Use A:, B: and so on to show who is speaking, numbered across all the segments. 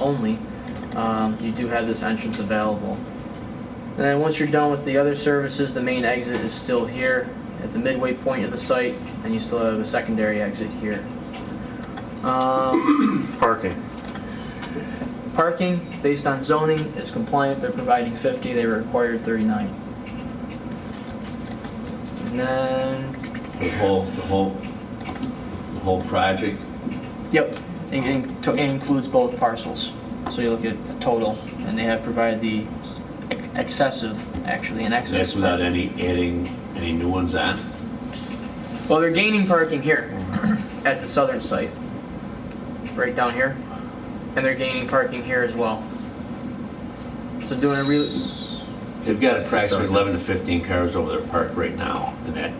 A: only, um, you do have this entrance available. And then once you're done with the other services, the main exit is still here at the midway point of the site, and you still have a secondary exit here. Um,
B: Parking.
A: Parking, based on zoning, is compliant, they're providing 50, they required 39. And then,
C: The whole, the whole, the whole project,
A: yep, it in- to- it includes both parcels. So you look at a total, and they have provided the s- ex- excessive, actually, an
C: and that's
A: excess.
C: without any adding, any new ones on?
A: Well, they're gaining parking here at the southern site, right down here, and they're gaining parking here as well. So doing a real,
C: They've got approximately 11 to 15 cars over there parked right now in that,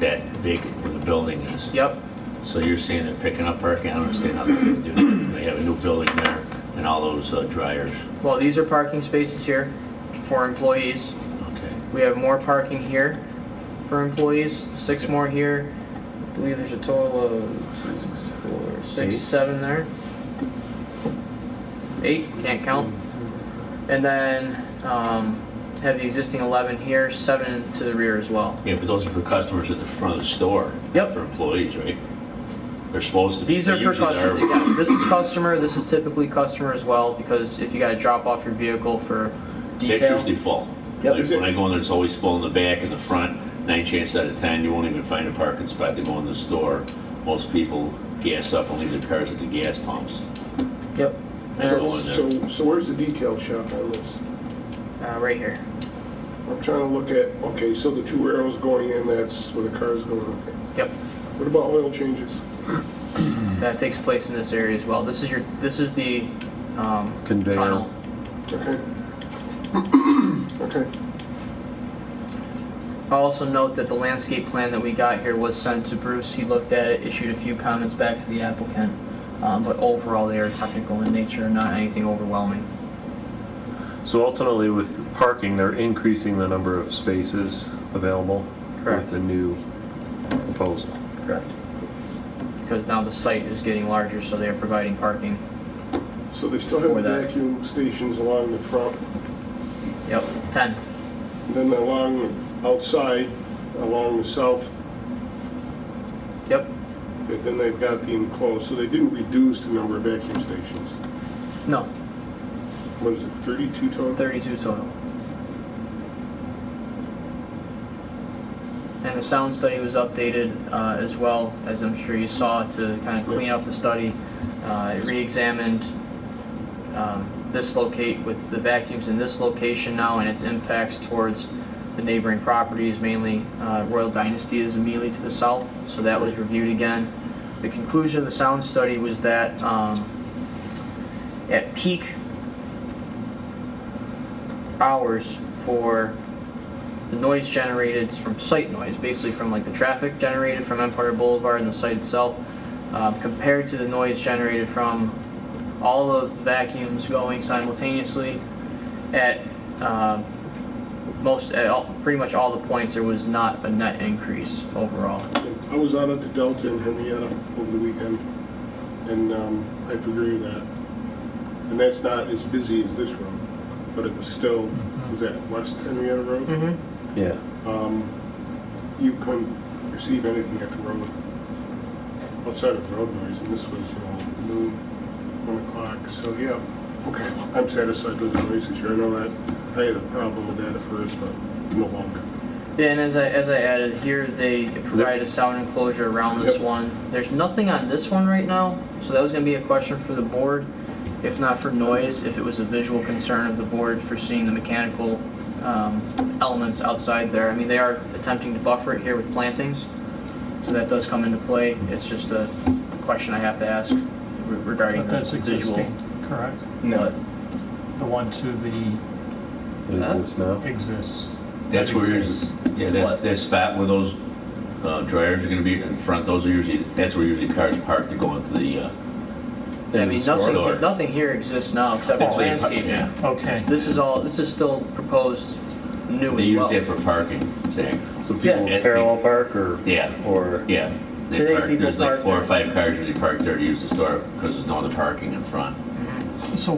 C: that vacant where the building is.
A: yep,
C: So you're saying they're picking up parking? I don't understand how they're gonna do that. They have a new building there and all those uh, dryers.
A: well, these are parking spaces here for employees.
C: Okay.
A: We have more parking here for employees, six more here. I believe there's a total of two, six, four, six,
B: Eight.
A: seven there. Eight, can't count. And then, um, have the existing eleven here, seven to the rear as well.
C: Yeah, but those are for customers at the front of the store. not
A: Yep.
C: For employees, right? They're supposed to. be.
A: These are for
C: usually they're-
A: customers, yeah, this is customer, this is typically customer as well, because if you gotta drop off your vehicle for
C: It's
A: detail.
C: usually full.
A: Yep.
C: Like,
D: Is it-
C: when I go in there, it's always full in the back and the front. Nine chances out of ten, you won't even find a parking spot to go in the store. Most people gas up and leave their cars at the gas pumps.
A: Yep, and
C: So-
A: it's,
D: So, so where's the detail shop I lives?
A: uh, right here,
D: I'm trying to look at, okay, so the two arrows going in, that's where the car's going, okay.
A: yep,
D: What about oil changes?
A: that takes place in this area as well, this is your, this is the, um,
B: Conveyor.
A: tunnel.
D: Okay. Okay,
A: I'll also note that the landscape plan that we got here was sent to Bruce, he looked at it, issued a few comments back to the applicant, um, but overall they are technical in nature, not anything overwhelming.
B: So ultimately, with parking, they're increasing the number of spaces available
A: Correct.
B: with the new proposal.
A: Correct. Because now the site is getting larger, so they are providing parking.
D: so they still
A: For
D: have the
A: that.
D: vacuum stations along the front,
A: Yep, ten.
D: and then along, outside, along the south,
A: Yep.
D: but then they've got the enclosed, so they didn't reduce the number of vacuum stations.
A: No,
D: What is it, 32 total?
A: thirty-two total. And the sound study was updated uh, as well, as I'm sure you saw, to kind of clean up the study. Uh, It re-examined um, this locate, with the vacuums in this location now and its impacts towards the neighboring properties, mainly uh, Royal Dynasty is immediately to the south, so that was reviewed again. The conclusion of the sound study was that um, at peak hours for the noise generated from site noise, basically from like the traffic generated from Empire Boulevard and the site itself, um, compared to the noise generated from all of the vacuums going simultaneously at um most, at all, pretty much all the points, there was not a net increase overall.
D: I was out at the Delta in Henrietta over the weekend, and um, I have to agree with that. And that's not as busy as this road, but it was still, was that West Henrietta Road?
A: Mm-hmm.
B: Yeah.
D: Um, You couldn't perceive anything at the road, outside of road noise, and this was, you know, noon, one o'clock, so yeah. Okay, I'm satisfied with the noise issue, I know that, I had a problem with that at first, but no longer.
A: Yeah, and as I, as I added here, they provide a sound enclosure around this
D: Yep.
A: one. There's nothing on this one right now, so that was gonna be a question for the board, if not for noise, if it was a visual concern of the board for seeing the mechanical, um, elements outside there. I mean, they are attempting to buffer it here with plantings, so that does come into play. It's just a question I have to ask re- regarding
E: But
A: the
E: that's
A: visual.
E: existing, correct?
A: But
E: The one to the
B: It
A: Huh?
B: exists now.
E: exists.
C: That's where,
E: Exists.
C: usually- yeah, that's,
A: What?
C: that spot where those uh, dryers are gonna be in front, those are usually, that's where usually cars park to go into the, uh,
A: I
B: And
A: mean,
B: store.
A: nothing, nothing here exists now except for
C: that's where you park-
A: landscaping.
C: yeah.
E: Okay,
A: This is all, this is still proposed new
C: They
A: as
C: use
A: well.
C: that for parking, Zach.
B: So
A: Yeah.
B: people parallel park or?
C: Yeah.
B: Or,
C: Yeah. They
A: Today
C: park-
A: people
C: There's like
A: park
C: four or
A: there.
C: five cars usually parked there to use the store because there's no other parking in front.
E: so